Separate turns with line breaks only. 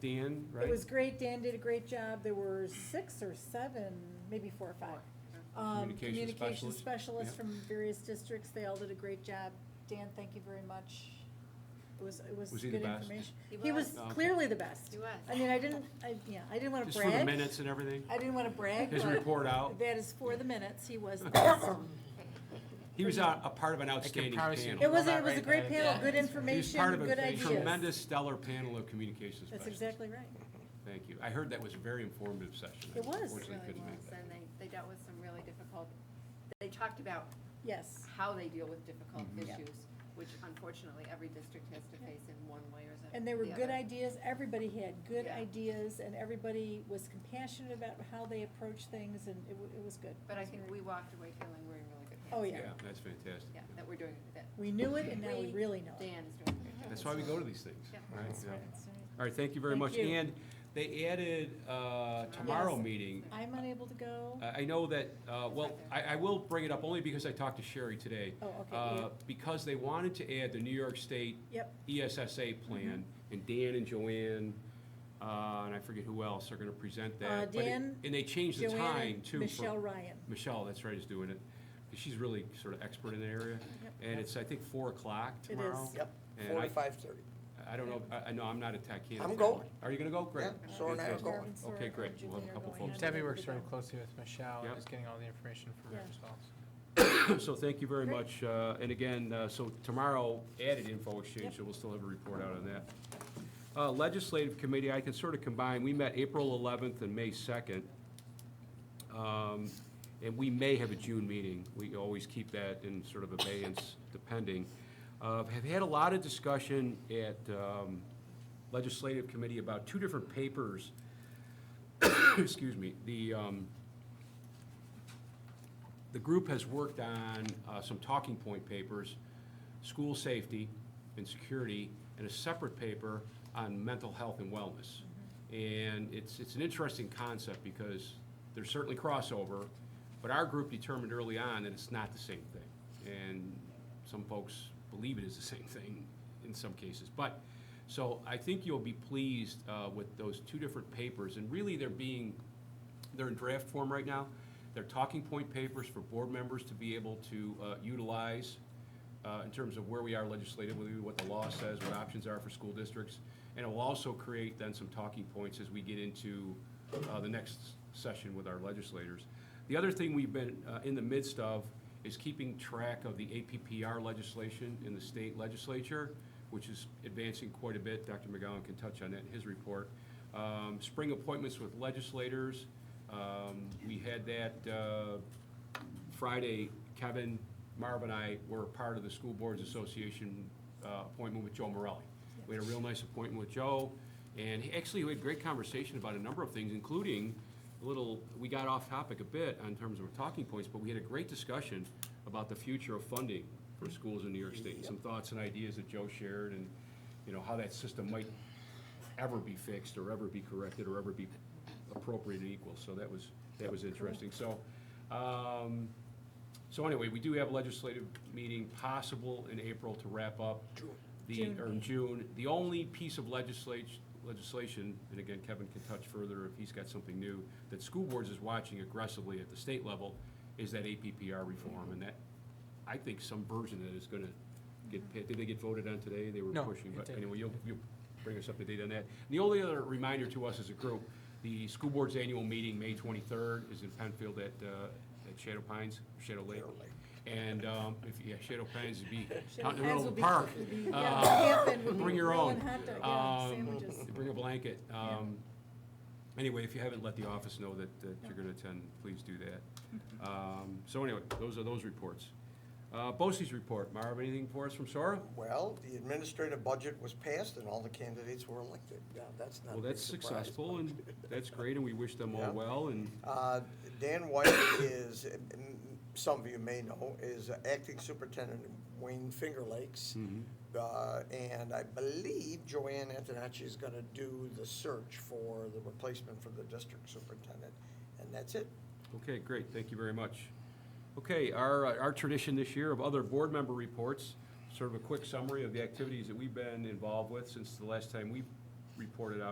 Dan,
It
right?
was great, Dan did a great job, there were six or seven, maybe four or five. Um,
Communication
communication
specialist,
specialists
yeah.
from various districts, they all did a great job. Dan, thank you very much. It was, it was
Was he the
good
best?
information.
He
He was
was.
Oh, okay.
clearly the best.
He was.
I mean, I didn't, I, yeah, I didn't wanna
Just for the
brag,
minutes and everything?
I didn't wanna brag,
His
but
report out?
that is for the minutes, he was the best.
He was a, a part of an outstanding
promise you-
panel.
It was,
Well,
a-
not
it was a
right
great
back,
panel,
yeah.
good
He was
information,
part of
good
a
ideas.
tremendous stellar panel of communications
That's
specialists.
exactly right.
Thank you. I heard that was a very informative session. I
It was.
Really
Unfortunately, couldn't make
was,
that.
and they, they dealt with some really difficult, they talked about
Yes,
how they deal with difficult
Mm-hmm.
Yep.
issues, which unfortunately every district has to face in one way or the.
and they were
the
good
other.
ideas, everybody had good
Yeah.
ideas, and everybody was compassionate about how they approached things, and it, wa- it was good.
But
It
I
was
think
very-
we walked away feeling we're in really good hands.
Oh,
Yeah,
yeah,
that's fantastic.
Yeah, that we're doing, that
we knew it, and now we
We-
really know it.
Dan is doing a great job.
That's why we go to these things,
Yeah.
right?
That's
Yeah.
right, that's right.
All right, thank you very
Thank
much.
you.
And they added uh, tomorrow
Yes.
meeting.
I'm unable to go,
I I know that, uh, well, I, I will bring it up only because I talked to Sherry today.
oh, okay,
Uh,
yeah.
Because they wanted to add the New York State E
yep, Mm-hmm.
ESSA plan, and Dan and Joanne, uh, and I forget who else are gonna present
Uh,
that. but it-
Dan,
And they changed the time
Joanne,
too.
and
for-
Michelle Ryan,
Michelle, that's right, is doing it. She's really sort of expert in the area.
Yep.
And it's, I think, four o'clock
It
tomorrow.
is.
Yep,
And
four
I-
to five thirty.
I don't know, I, I know I'm not a tech candidate.
I'm going.
Are you gonna go? Great.
Yeah, Sora and I are
Fantastic.
going.
Okay, great. We'll have a couple folks.
Debbie
Debbie
works
works
very
very
closely with Michelle,
Yep.
is getting all the information from her
Yeah.
as well. so.
So thank you very
Great.
much. Uh, And again, uh, so tomorrow, added info exchange, so we'll still have a report out on that. Uh, Legislative Committee, I can sort of combine, we met April 11th and May 2nd. Um, And we may have a June meeting. We always keep that in sort of abeyance depending. Uh, Have had a lot of discussion at um, Legislative Committee about two different papers. Excuse me, the, um, the group has worked on uh, some talking point papers, school safety and security, and a separate paper on mental health and wellness. And it's, it's an interesting concept because there's certainly crossover, but our group determined early on that it's not the same thing. And some folks believe it is the same thing in some cases. But, so I think you'll be pleased uh, with those two different papers, and really they're being they're in draft form right now. They're talking point papers for board members to be able to uh, utilize uh, in terms of where we are legislatively, what the law says, what options are for school districts. And it will also create then some talking points as we get into uh, the next session with our legislators. The other thing we've been uh, in the midst of is keeping track of the APPR legislation in the state legislature, which is advancing quite a bit. Dr. McGowan can touch on that in his report. Um, Spring appointments with legislators. Um, We had that uh, Friday, Kevin, Marv, and I were part of the School Boards Association uh, appointment with Joe Morelli. We had a real nice appointment with Joe, and he- actually, we had great conversation about a number of things, including a little, we got off topic a bit in terms of talking points, but we had a great discussion about the future of funding for schools in New York State, and some thoughts and ideas that Joe shared, and, you know, how that system might ever be fixed, or ever be corrected, or ever be appropriate and equal, so that was, that was interesting. So, um, so anyway, we do have a legislative meeting possible in April to wrap up. The,
June.
or in June. The only piece of legislation, legislation, and again, Kevin can touch further if he's got something new, that school boards is watching aggressively at the state level, is that APPR reform, and that, I think some version of it is gonna get, pa- did they get voted on today? They were
No,
pushing,
it
but
didn't.
anyway, you'll, you'll bring us up to date on that. The only other reminder to us as a group, the school board's annual meeting, May twenty-third, is in Penfield at, uh, at Shadow Pines, Shadow Lake. And, um, if, yeah, Shadow Pines would be out in the middle of the park.
Yeah,
Uh,
camping would be
bring your
rolling
own.
hot dog, yeah,
Um,
sandwiches.
Bring a blanket. Um, Anyway, if you haven't let the office know that, that you're gonna attend, please do that. Um, So anyway, those are those reports. Uh, Bosse's report. Marv, anything for us from Sora?
Well, the administrative budget was passed and all the candidates were elected. Now, that's not a
Well,
big
that's
surprise,
successful,
but-
and that's great, and we wish them all
Yeah.
well, and
Uh, Dan White is, m- some of you may know, is acting superintendent in Wayne Finger Lakes.
Mm-hmm.
Uh, And I believe Joanne Antonacci is going to do the search for the replacement for the district superintendent. And that's it.
Okay, great, thank you very much. Okay, our, uh, our tradition this year of other board member reports, sort of a quick summary of the activities that we've been involved with since the last time we reported out.